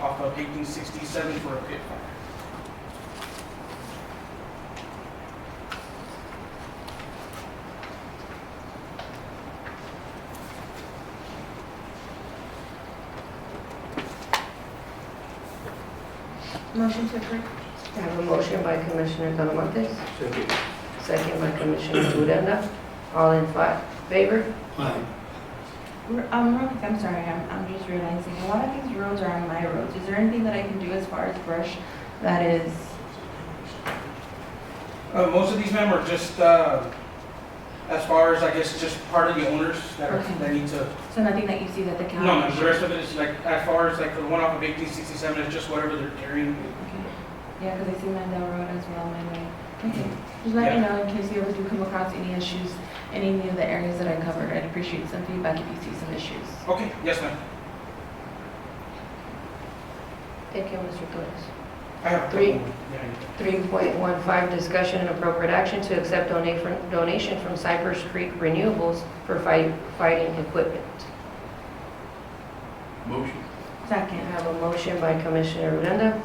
off of eighteen sixty-seven for a pit fire. Motion to approve. I have a motion by Commissioner Talamontes, Second. second by Commissioner Uranda. All in fi- favor? Aye. R- Um, real quick, I'm sorry, I'm, I'm just realizing, a lot of these roads are on my roads. Is there anything that I can do as far as brush that is, Uh, most of these men were just, uh, as far as, I guess, just part of the owners that are, Okay. that need to, so nothing that you see that the county? no, no, the rest of it is like, as far as like the one off of eighteen sixty-seven is just whatever they're carrying. Okay. Yeah, because I see Mandel Road as well, my way. Okay, just let me know in case you ever do come across any issues, in any of the areas that I covered. I'd appreciate some feedback if you see some issues. Okay, yes, ma'am. Thank you, Mr. Torres. I have a couple Three. more. Yeah, yeah. 3.15, discussion and appropriate action to accept dona- from- donation from Cypress Creek Renewables for fi- fighting equipment. Motion. I Second. have a motion by Commissioner Uranda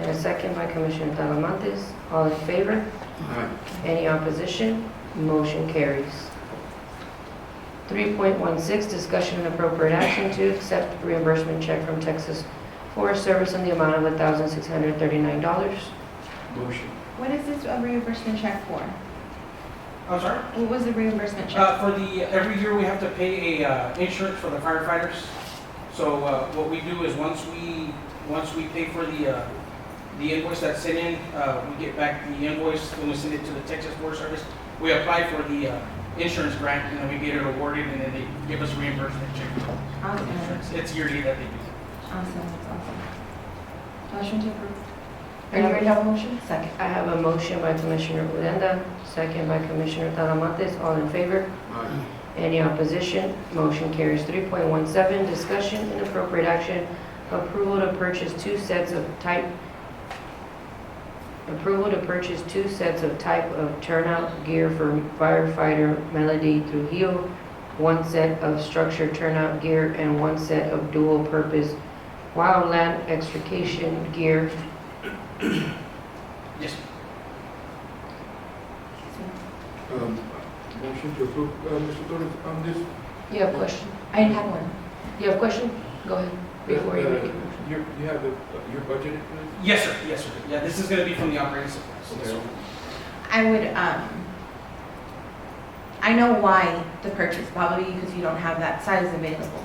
and a second by Commissioner Talamontes. All in favor? Aye. Any opposition? Motion carries. 3.16, discussion and appropriate action to accept reimbursement check from Texas Forest Service in the amount of $1,639. Motion. What is this a reimbursement check for? I'm sorry? What was the reimbursement check? Uh, for the, every year we have to pay a, uh, insurance for the firefighters. So, uh, what we do is once we, once we pay for the, uh, the invoice that's sent in, uh, we get back the invoice when we send it to the Texas Forest Service. We apply for the, uh, insurance grant and then we get it awarded and then they give us reimbursement check for Awesome, the insurance. It's yearly that they do. awesome, that's awesome. Motion to approve. Are you ready to have a motion? Second. I have a motion by Commissioner Uranda, second by Commissioner Talamontes. All in favor? Aye. Any opposition? Motion carries. 3.17, discussion and appropriate action, approval to purchase two sets of type, approval to purchase two sets of type of turnout gear for firefighter Melody Trujillo, one set of structured turnout gear and one set of dual-purpose wildland extrication gear. Yes, Um, Motion to approve, uh, Mr. Torres, on this. uh, You have a question? I didn't have one. You have a question? Go ahead, before you Uh, make your motion. You you have the, uh, your budget for this? yes, sir, yes, sir. Yeah, this is gonna be from the operating supplies. Yes, sir. I would, um, I know why the purchase, probably because you don't have that size available.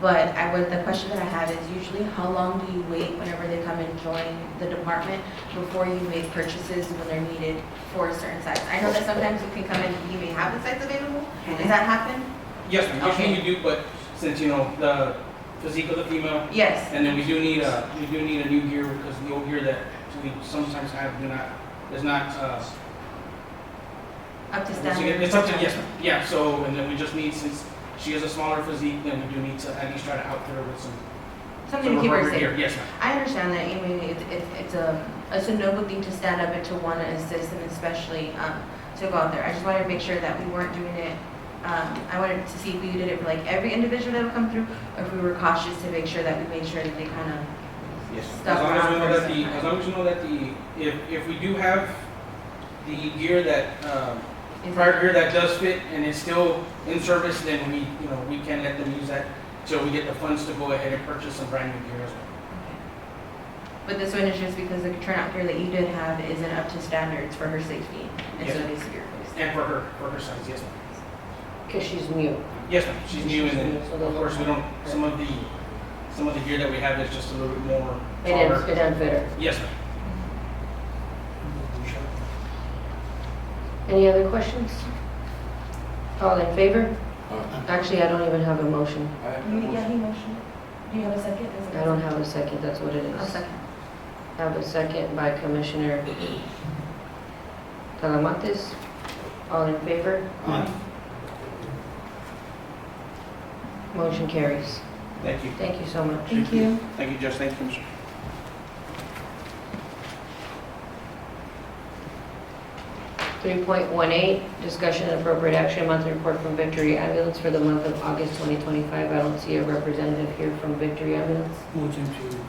But I would, the question that I have is usually how long do you wait whenever they come and join the department before you make purchases when they're needed for a certain size? I know that sometimes you can come in, you may have the size available. Does that happen? Yes, ma'am, usually Okay. you do, but since, you know, the physique of the female, Yes. And then we do need a, we do need a new gear because the old gear that we sometimes have do not, is not, uh, Up to once standard. again, it's up to, yes, ma'am. yeah, so, and then we just need, since she has a smaller physique, then we do need to at least try to out her with some. Something some to keep her appropriate safe. gear. Yes, ma'am. I understand that, I mean, it, it, it's um, a, it's a noble thing to stand up and to want to assist and especially, um, to go out there. I just wanted to make sure that we weren't doing it, um, I wanted to see if we did it for like every individual that would come through, or if we were cautious to make sure that we made sure that they kind of, Yes. ma'am. Stuff As long as we around know for that the, some as long as you know that the, if, if we do have the gear that, um, prior gear that does fit and is still in service, then we, you know, we can let them use that till we get the funds to go ahead and purchase some brand new gear as well. But this one is just because the turnout gear that you did have isn't up to standards for her safety, and so Yes. it needs to be replaced. And for her, for her size, yes, ma'am. Because she's new. Yes, ma'am, she's new, and then, of course, we don't, some of the, some of the gear that we have is just a little bit more It didn't, taller. it didn't fit her. Yes, ma'am. Any other questions? All in favor? Aye. Actually, I don't even have a motion. Uh, I have the motion. motion? Do you have a second? Is it- I don't have a second, that's what it is. A second. I Have a second by Commissioner Talamontes. All in favor? Aye. Motion carries. Thank you. Thank you so much. Thank you. Thank you, Judge, thank you, Commissioner. 3.18, discussion and appropriate action, monthly report from Victory Ambulance for the month of August 2025. I don't see a representative here from Victory Ambulance. Motion to